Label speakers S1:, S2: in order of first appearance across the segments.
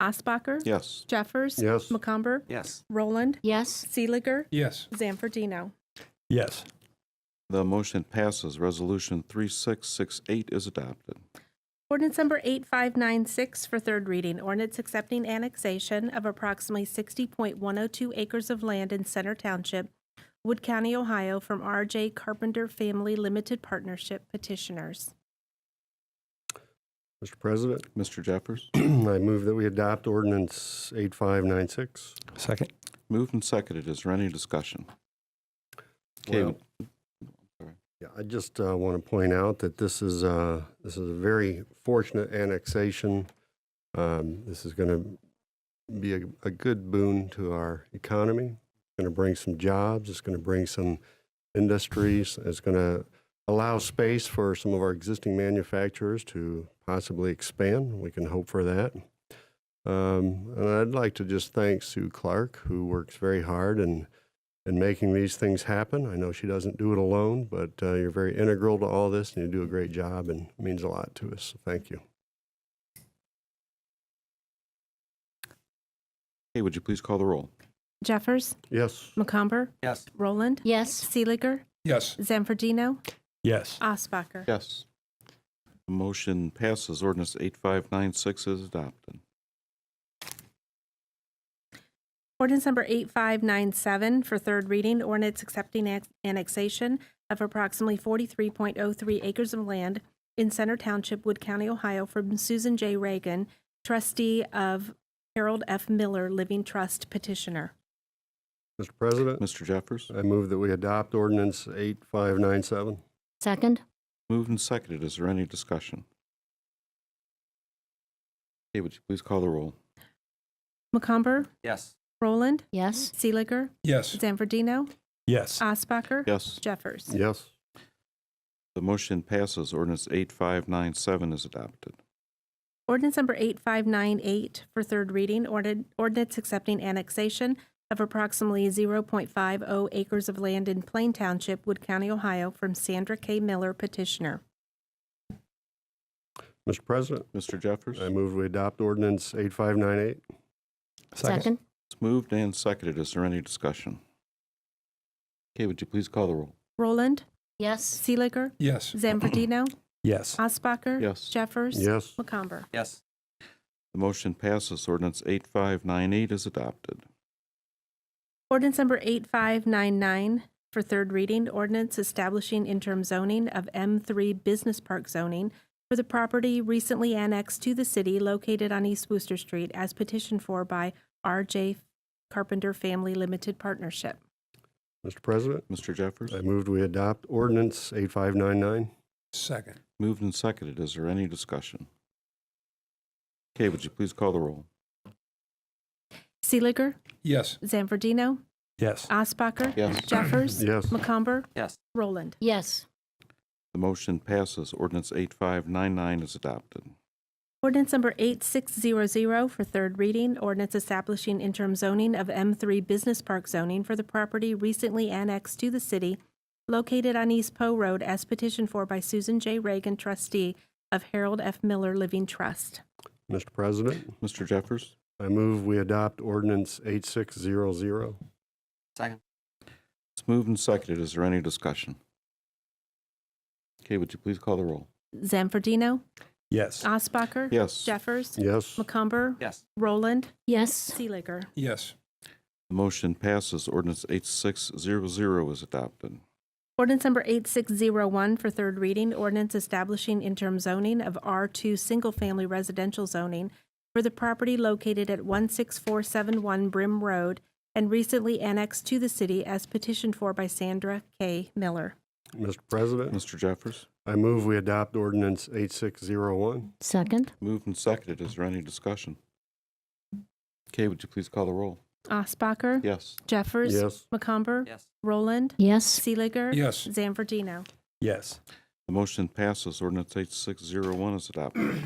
S1: Osbacher.
S2: Yes.
S1: Jeffers.
S3: Yes.
S1: McCumber.
S4: Yes.
S1: Roland.
S5: Yes.
S1: Seeliger.
S6: Yes.
S1: Zanfordino.
S3: Yes.
S2: The motion passes. Resolution 3668 is adopted.
S1: Ordinance number 8596 for third reading. Ordinance accepting annexation of approximately 60.102 acres of land in Center Township, Wood County, Ohio, from RJ Carpenter Family Limited Partnership petitioners.
S3: Mr. President,
S2: Mr. Jeffers?
S3: I move that we adopt ordinance 8596.
S6: Second.
S2: Moved and seconded. Is there any discussion? Okay,
S3: Well- Yeah, I just want to point out that this is, uh, this is a very fortunate annexation. Um, This is going to be a, a good boon to our economy. It's going to bring some jobs, it's going to bring some industries, it's going to allow space for some of our existing manufacturers to possibly expand. We can hope for that. Um, And I'd like to just thank Sue Clark, who works very hard and and making these things happen. I know she doesn't do it alone, but uh, you're very integral to all this, and you do a great job, and it means a lot to us. So thank you.
S2: Okay, would you please call the roll?
S1: Jeffers.
S3: Yes.
S1: McComber.
S4: Yes.
S1: Roland.
S5: Yes.
S1: Seeliger.
S6: Yes.
S1: Zanfordino.
S6: Yes.
S1: Osbacher.
S2: Yes. The motion passes. Ordinance 8596 is adopted.
S1: Ordinance number 8597 for third reading, ordinance accepting annex- annexation of approximately 43.03 acres of land in Center Township, Wood County, Ohio from Susan J. Reagan, trustee of Harold F. Miller Living Trust petitioner.
S3: Mr. President,
S2: Mr. Jeffers?
S3: I move that we adopt ordinance 8597.
S5: Second.
S2: Moved and seconded. Is there any discussion? Okay, would you please call the roll?
S1: McComber,
S4: Yes.
S1: Roland,
S5: Yes.
S1: Seeliger,
S6: Yes.
S1: Zanfordino,
S6: Yes.
S1: Uh, Osbacher,
S2: Yes.
S1: Jeffers.
S3: Yes.
S2: The motion passes. Ordinance 8597 is adopted.
S1: Ordinance number 8598 for third reading, ordin- ordinance accepting annexation of approximately 0.50 acres of land in Plain Township, Wood County, Ohio, from Sandra K. Miller petitioner.
S3: Mr. President,
S2: Mr. Jeffers?
S3: I move we adopt ordinance 8598.
S5: Second.
S2: It's moved and seconded. Is there any discussion? Okay, would you please call the roll?
S1: Roland,
S5: Yes.
S1: Seeliger,
S6: Yes.
S1: Zamfordino, Uh,
S6: Yes.
S1: Osbacher.
S2: Yes.
S1: Jeffers.
S3: Yes.
S1: McComber.
S4: Yes.
S2: The motion passes. Ordinance 8598 is adopted.
S1: Ordinance number 8599 for third reading, ordinance establishing interim zoning of M3 Business Park zoning for the property recently annexed to the city located on East Wooster Street as petitioned for by RJ Carpenter Family Limited Partnership.
S3: Mr. President,
S2: Mr. Jeffers?
S3: I moved we adopt ordinance 8599.
S6: Second.
S2: Moved and seconded. Is there any discussion? Okay, would you please call the roll?
S1: Seeliger,
S6: Yes.
S1: Zanfordino,
S6: Yes.
S1: Uh, Osbacher.
S2: Yes.
S1: Jeffers.
S3: Yes.
S1: McComber,
S4: Yes.
S1: Roland.
S5: Yes.
S2: The motion passes. Ordinance 8599 is adopted.
S1: Ordinance number 8600 for third reading, ordinance establishing interim zoning of M3 Business Park zoning for the property recently annexed to the city located on East Poe Road as petitioned for by Susan J. Reagan, trustee of Harold F. Miller Living Trust.
S3: Mr. President,
S2: Mr. Jeffers?
S3: I move we adopt ordinance 8600.
S4: Second.
S2: It's moved and seconded. Is there any discussion? Okay, would you please call the roll?
S1: Zamfordino,
S6: Yes.
S1: uh, Osbacher.
S2: Yes.
S1: Jeffers.
S3: Yes.
S1: McCumber.
S4: Yes.
S1: Roland.
S5: Yes.
S1: Seeliger.
S6: Yes.
S2: The motion passes. Ordinance 8600 is adopted.
S1: Ordinance number 8601 for third reading, ordinance establishing interim zoning of R2 Single Family Residential Zoning for the property located at 16471 Brim Road and recently annexed to the city as petitioned for by Sandra K. Miller.
S3: Mr. President,
S2: Mr. Jeffers?
S3: I move we adopt ordinance 8601.
S5: Second.
S2: Moved and seconded. Is there any discussion? Okay, would you please call the roll?
S1: Osbacher.
S2: Yes.
S1: Jeffers.
S3: Yes.
S1: McComber.
S4: Yes.
S1: Roland.
S5: Yes.
S1: Seeliger.
S6: Yes.
S1: Zanfordino.
S6: Yes.
S2: The motion passes. Ordinance 8601 is adopted.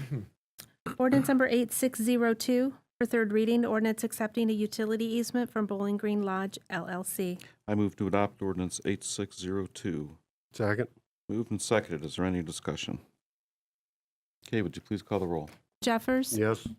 S1: Ordinance number 8602 for third reading, ordinance accepting a utility easement from Bowling Green Lodge LLC.
S2: I move to adopt ordinance 8602.
S3: Second?
S2: Moved and seconded. Is there any discussion? Okay, would you please call the roll?
S1: Jeffers.
S3: Yes.